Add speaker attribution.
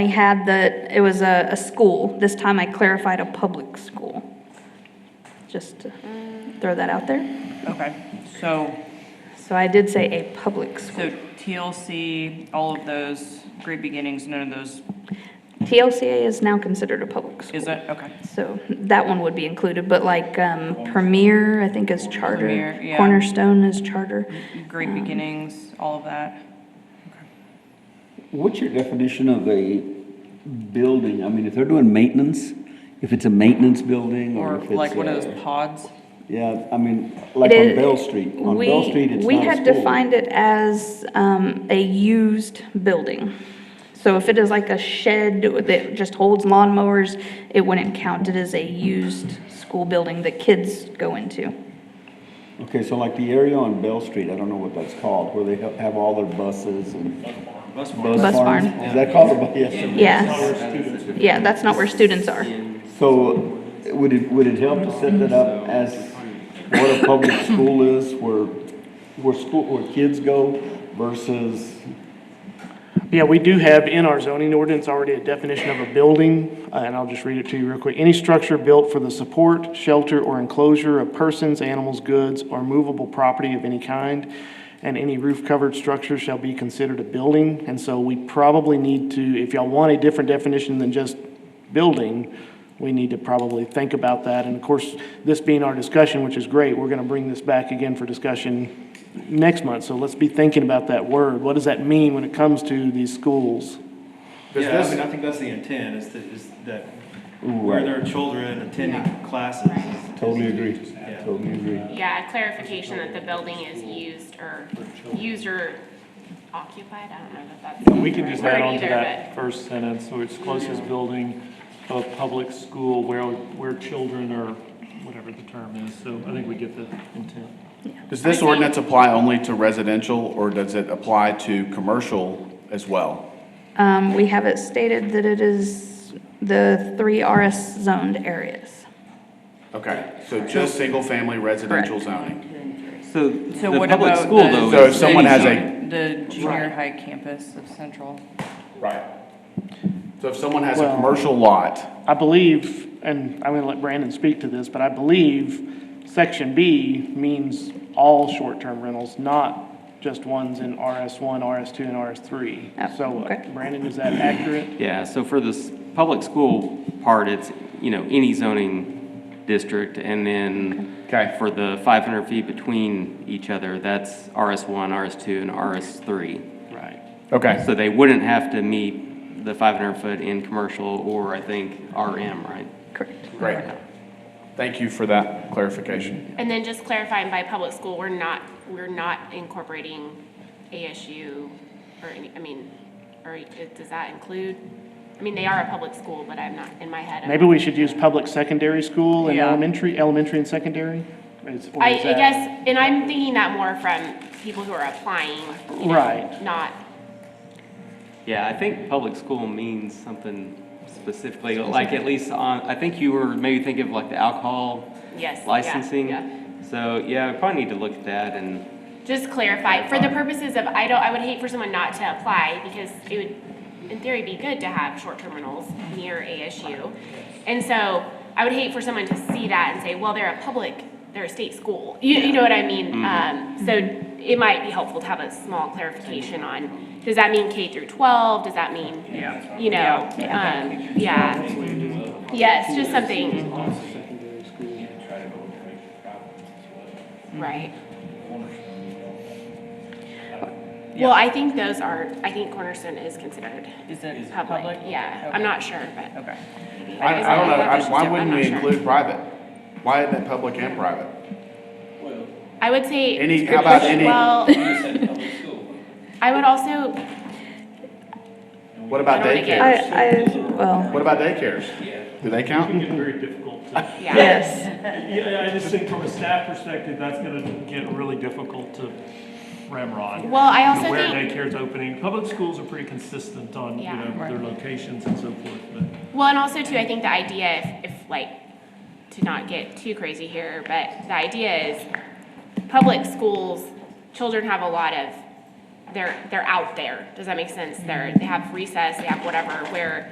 Speaker 1: I had that it was a, a school. This time I clarified a public school. Just to throw that out there.
Speaker 2: Okay, so,
Speaker 1: So I did say a public school.
Speaker 2: so TLC, all of those, Great Beginnings, none of those
Speaker 1: TLCA is now considered a public school.
Speaker 2: is it? Okay.
Speaker 1: So that one would be included, but like um, Premier, I think is charter.
Speaker 2: Premier, yeah. Mm-hmm.
Speaker 1: Cornerstone is charter.
Speaker 2: Great Beginnings, all of that.
Speaker 3: What's your definition of a building? I mean, if they're doing maintenance, if it's a maintenance building or
Speaker 2: Or
Speaker 3: if it's.
Speaker 2: like one of
Speaker 3: a-
Speaker 4: uh,
Speaker 2: those pods?
Speaker 3: Yeah, I mean, like on
Speaker 1: It-
Speaker 3: Bell Street. On Bell
Speaker 1: we-
Speaker 3: Street, it's not a school.
Speaker 1: We had defined it as um, a used building. So if it is like a shed that just holds lawnmowers, it wouldn't count. It is a used school building that kids go into.
Speaker 3: Okay, so like the area on Bell Street, I don't know what that's called, where they ha- have all their buses and. Bus barns.
Speaker 1: Bus barn.
Speaker 3: Is that called a, bu- yes.
Speaker 1: Yeah. Yeah, that's not where students are.
Speaker 3: So would it, would it help to set that up as what a public school is, where, where school, where kids go versus,
Speaker 5: Yeah, we do have in our zoning ordinance already a definition of a building, uh, and I'll just read it to you real quick. Any structure built for the support, shelter, or enclosure of persons, animals, goods, or movable property of any kind, and any roof-covered structure shall be considered a building. And so we probably need to, if y'all want a different definition than just building, we need to probably think about that. And of course, this being our discussion, which is great, we're going to bring this back again for discussion next month. So let's be thinking about that word. What does that mean when it comes to these schools?
Speaker 6: Yeah, I mean, I think that's the intent, is that, is that where
Speaker 3: right.
Speaker 6: there are children attending classes. is-
Speaker 3: totally agree,
Speaker 6: Yeah.
Speaker 3: totally agree.
Speaker 7: Yeah, a clarification that the building is used or user occupied, I don't know if that's.
Speaker 8: We can just add on to
Speaker 7: Either,
Speaker 8: that first sentence, so it's closest building of public school where, where children are, whatever the term is, so I think we get the intent.
Speaker 4: Does this ordinance apply only to residential, or does it apply to commercial as well?
Speaker 1: Um, We have it stated that it is the three RS zoned areas.
Speaker 4: Okay, so just single-family residential zoning?
Speaker 9: So
Speaker 2: So
Speaker 9: the
Speaker 2: what
Speaker 9: public
Speaker 2: about
Speaker 9: school, though,
Speaker 2: the-
Speaker 4: So if
Speaker 9: is
Speaker 4: someone
Speaker 9: city
Speaker 4: has a-
Speaker 9: zoning.
Speaker 2: The junior high campus of Central.
Speaker 4: Right. So if someone has
Speaker 5: Well-
Speaker 4: a commercial lot,
Speaker 5: I believe, and I'm going to let Brandon speak to this, but I believe section B means all short-term rentals, not just ones in RS1, RS2, and
Speaker 1: Oh,
Speaker 5: RS3. So,
Speaker 1: okay.
Speaker 5: Brandon, is that accurate?
Speaker 9: Yeah, so for this public school part, it's, you know, any zoning district, and then
Speaker 4: Okay.
Speaker 9: for the 500 feet between each other, that's RS1, RS2, and RS3.
Speaker 5: Right.
Speaker 4: okay,
Speaker 9: So they wouldn't have to meet the 500-foot in commercial or, I think, RM, right?
Speaker 1: Correct.
Speaker 4: great. Thank you for that clarification.
Speaker 7: And then just clarifying by public school, we're not, we're not incorporating ASU or any, I mean, or it- does that include? I mean, they are a public school, but I'm not, in my head. I'm
Speaker 5: Maybe we should use public secondary school and
Speaker 2: Yeah.
Speaker 5: elementary, elementary and secondary? Is- or
Speaker 7: I,
Speaker 5: is
Speaker 7: I
Speaker 5: that-
Speaker 7: guess, and I'm thinking that more from people who are applying, you know,
Speaker 5: Right.
Speaker 7: not,
Speaker 9: Yeah, I think public school means something specifically, like at least on, I think you were maybe thinking of like the alcohol
Speaker 7: yes. yeah, yeah.
Speaker 9: licensing. So, yeah, we probably need to look at that and,
Speaker 7: Just clarify, for the purposes of, I don't, I would hate for someone not to apply, because it would, in theory, be good to have short-term rentals near ASU. And so, I would hate for someone to see that and say, well, they're a public, they're a state school, you, you know what I mean? Um, so, it might be helpful to have a small clarification on, does that mean K through twelve, does that mean, you know, um, yeah. Yes, just something,
Speaker 4: Mm-hmm.
Speaker 7: right. Well, I think those are, I think Cornerstone is considered
Speaker 2: Is it
Speaker 7: public.
Speaker 2: public?
Speaker 7: Yeah,
Speaker 2: Okay.
Speaker 7: I'm not sure, but
Speaker 2: Okay.
Speaker 4: I, I don't know, I- why wouldn't we
Speaker 7: I'm not sure.
Speaker 4: include private? Why isn't it public and private?
Speaker 7: I would say.
Speaker 4: Any- how about any-
Speaker 7: Well, I would also,
Speaker 4: What about
Speaker 7: I don't wanna
Speaker 1: I,
Speaker 4: daycare?
Speaker 7: get-
Speaker 1: I, well,
Speaker 4: What about daycares? Do they count?
Speaker 8: Very difficult to.
Speaker 7: yeah,
Speaker 1: yes,
Speaker 8: Yeah, I just think from a staff perspective, that's gonna get really difficult to ramrod.
Speaker 7: well, I also
Speaker 8: Where
Speaker 7: think,
Speaker 8: daycare's opening, public schools are pretty consistent on, you
Speaker 7: Yeah.
Speaker 8: know, their locations and so forth, but.
Speaker 7: well, and also too, I think the idea, if, if like, to not get too crazy here, but the idea is public schools, children have a lot of they're, they're out there. Does that make sense? They're, they have recess, they have whatever, where